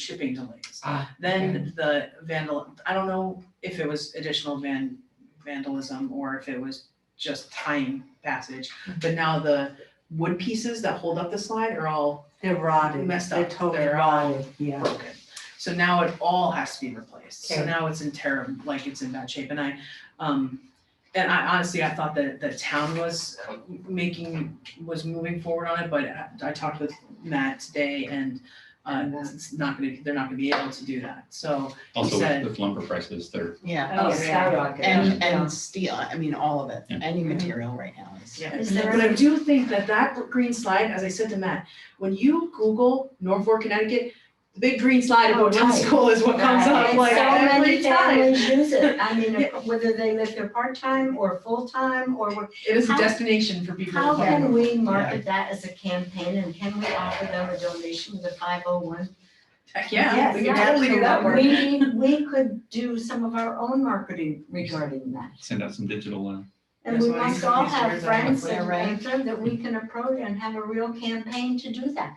shipping delays. Uh, Ah, Then the vandal, I don't know if it was additional van vandalism or if it was just time passage. But now the wood pieces that hold up the slide are all They're rotted, Messed they're up. totally They're all- rotted, yeah. broken. So now it all has to be replaced. So Okay. now it's in terrible, like it's in bad shape. And I, um, and I honestly, I thought that the town was making, was moving forward on it, but I- I talked with Matt today and uh, it's not gonna, they're not gonna be able to do that. So, Also said- with- with lumber prices, they're, Yeah, Oh, Oh, yeah. skyrocket. and, and steel, I mean, all of it, Yeah. any material right now is. yeah. Is But I do think that that green slide, as I said to Matt, when you Google Norfolk, Connecticut, the big green slide Oh, about town right. school is what comes up And like so every many time. families use it, I mean, whether they live there part-time or full-time or what- It is a How- destination for people. how who- can we market that as a campaign and can we offer them a donation with a five oh one? Heck, yeah, we can Yes, totally do that absolutely. work. We, we could do some of our own marketing regarding that. send out some digital, uh, And That's we why must you all use have yours on friends the and right. and friends that we can approach and have a real campaign to do that.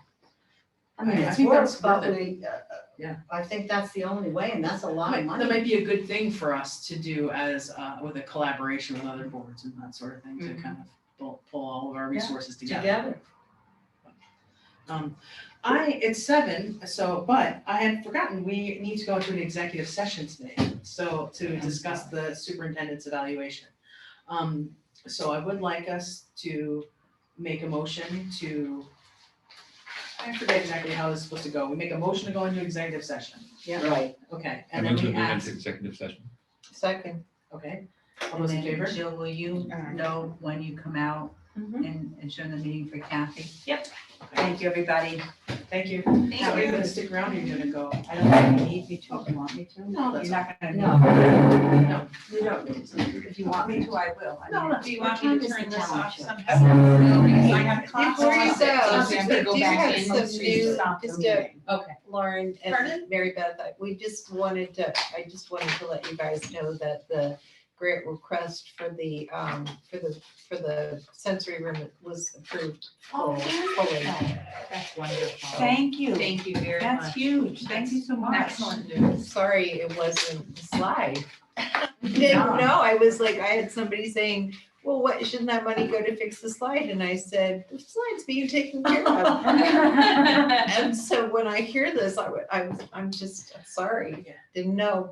I mean, I it's think work, that's but worth we, uh, uh, Yeah. I think that's the only way and that's a lot Might- of money. That might be a good thing for us to do as, uh, with a collaboration with other boards and that sort of thing, to kind of pull, pull all of our Mm-hmm. Yeah, resources together. Together. Um, I, it's seven, so, but I had forgotten, we need to go into an executive session today, so to discuss the superintendent's evaluation. Um, so I would like us to make a motion to, I forget exactly how this is supposed to go, we make a motion to go into executive session, Yeah, right. okay, I and then move to we move into ask, executive session. Second. okay, all those in And then, favor? Jill, will you Alright. know when you come out Mhm. and adjourn the meeting for Kathy? Okay. Thank you, everybody. Thank you. Thank So are you you. gonna stick around or you're gonna go? I don't think you need me to, if you want me to. No, that's You're not gonna. No. You don't need to. If you want me to, I will. I No, mean- no. Do you want me to turn this off somehow? Because I have class. Before you Okay. go, So I'm do gonna go you back have in some to new- stop the just a- meeting. Lauren Pardon? and Mary Beth, I- we just wanted to, I just wanted to let you guys know that the grant request for the, um, for the, for the sensory room was approved full- fully. Oh, That's wonderful. Thank you. Thank you very much. That's huge. Thank you so much. Excellent news. Sorry, it wasn't the slide. No, no, I was like, I had somebody saying, well, what, shouldn't that money go to fix the slide? And I said, the slide's being taken care of. And so when I hear this, I, wa- I'm, I'm just, I'm sorry, Yeah. didn't know.